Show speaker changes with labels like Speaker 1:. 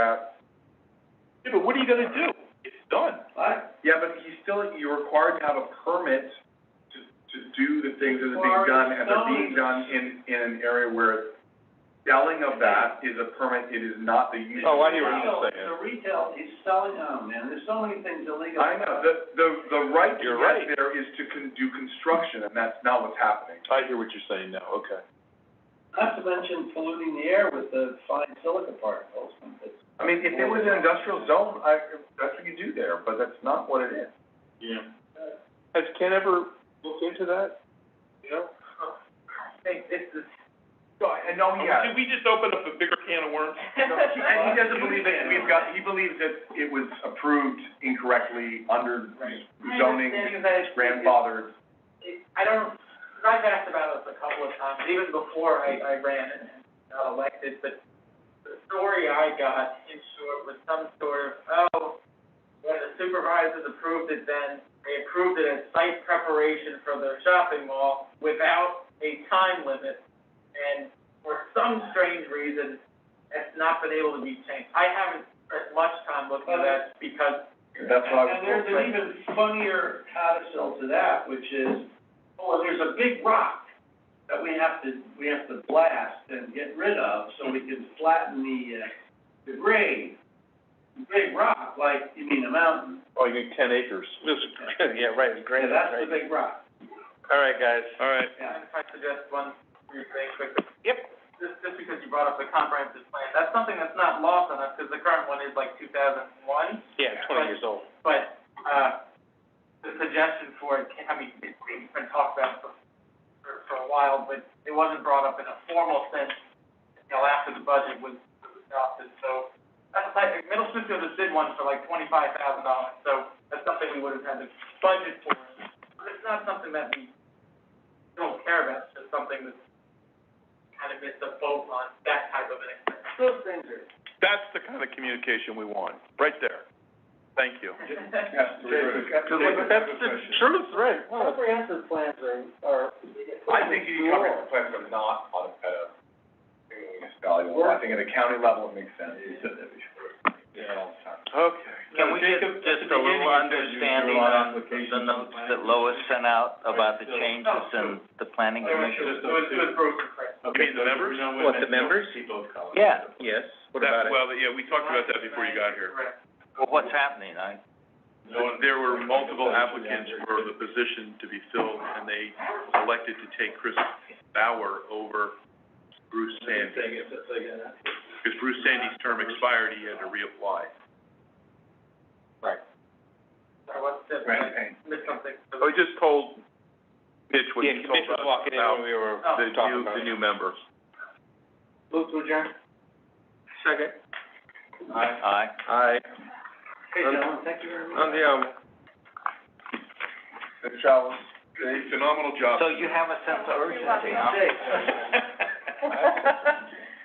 Speaker 1: Yeah, but what are you gonna do? It's done.
Speaker 2: What?
Speaker 3: Yeah, but you still, you're required to have a permit to, to do the things that are being
Speaker 2: Required
Speaker 3: done, and they're
Speaker 2: zoning.
Speaker 3: being done in, in an area where selling of that is a permit, it is not the use.
Speaker 1: Oh, I
Speaker 3: of
Speaker 1: hear what
Speaker 3: that.
Speaker 1: you're saying.
Speaker 2: The retail is selling them, man, there's so many things illegal.
Speaker 3: I know, the, the, the right to
Speaker 1: You're right.
Speaker 3: get there is to con- do construction, and that's not what's happening.
Speaker 1: I hear what you're saying now, okay.
Speaker 2: Not to mention polluting the air with the fine silica particles.
Speaker 3: I mean, if it was an industrial zone, I, that's what you do there, but that's not what it is.
Speaker 1: Yeah. Has Ken ever looked into that? No.
Speaker 3: Hey, this is. So, I know he has.
Speaker 1: Did we just open up a bigger can of worms?
Speaker 3: No, he- And he doesn't believe that we've got, he believes that it was approved incorrectly under zoning, grandfathered.
Speaker 4: I don't, I've asked about this a couple of times, even before I, I ran and got elected, but the story I got in short was some sort of, oh, when the supervisors approved it then, they approved it as site preparation for their shopping mall without a time limit. And for some strange reason, it's not been able to be changed. I haven't spent much time looking at that because
Speaker 3: That's what I was.
Speaker 2: And there's an even funnier codicil to that, which is, oh, there's a big rock that we have to, we have to blast and get rid of so we can flatten the, uh, the grade. Big rock, like, you mean a mountain,
Speaker 1: Oh, you mean ten acres. Yeah, right,
Speaker 2: yeah,
Speaker 1: grand,
Speaker 2: that's the big rock,
Speaker 1: All right, guys. All right.
Speaker 2: yeah.
Speaker 4: If I suggest one brief thing quickly.
Speaker 1: Yep.
Speaker 4: Just, just because you brought up the comprehensive plan, that's something that's not lost on us, because the current one is like two thousand and one.
Speaker 1: Yeah, twenty years old.
Speaker 4: But, uh, the suggestion for it, ca- I mean, it- it's been talked about for, for, for a while, but it wasn't brought up in a formal sense, you know, after the budget was was adopted, so. That's like, Middle Smithfield just did one for like twenty-five thousand dollars, so that's something we would have had to budget for. But it's not something that we don't care about, it's just something that's kind of missed the boat on that type of an expense.
Speaker 2: Those things are
Speaker 1: That's the kind of communication we want, right there. Thank you.
Speaker 3: Yes,
Speaker 1: Jason,
Speaker 3: Jason,
Speaker 1: That's the truth, right?
Speaker 4: Comprehensive plans are, are.
Speaker 3: I think you need comprehensive plans are not on, uh, municipality level, I think at a county level it makes sense.
Speaker 1: Yeah. Okay.
Speaker 5: Can we get just a little understanding on the notes that Lois sent out about the changes in the planning commission?
Speaker 4: It was, it was broken, right?
Speaker 1: You mean the members?
Speaker 5: What, the members? Yeah. Yes, what about it?
Speaker 1: Well, yeah, we talked about that before you got here.
Speaker 4: Correct.
Speaker 5: Well, what's happening? I,
Speaker 1: There were multiple applicants for the position to be filled, and they elected to take Chris Bauer over Bruce Sandy. Because Bruce Sandy's term expired, he had to reapply.
Speaker 4: Or what's the,
Speaker 3: Right, and
Speaker 4: missed something.
Speaker 1: I just told Mitch what
Speaker 6: Yeah,
Speaker 1: he told us
Speaker 6: Mitch was walking in
Speaker 1: about
Speaker 6: when we were
Speaker 5: Oh.
Speaker 1: the
Speaker 6: talking
Speaker 1: new,
Speaker 6: about
Speaker 1: the
Speaker 6: it.
Speaker 1: new members.
Speaker 4: Move to adjourn. Second.
Speaker 5: I.
Speaker 6: Aye.
Speaker 2: Okay, gentlemen, thank you very much.
Speaker 6: On the, um,
Speaker 3: the travels.
Speaker 1: Phenomenal job.
Speaker 5: So you have a sense of urgency, huh?
Speaker 2: Jake.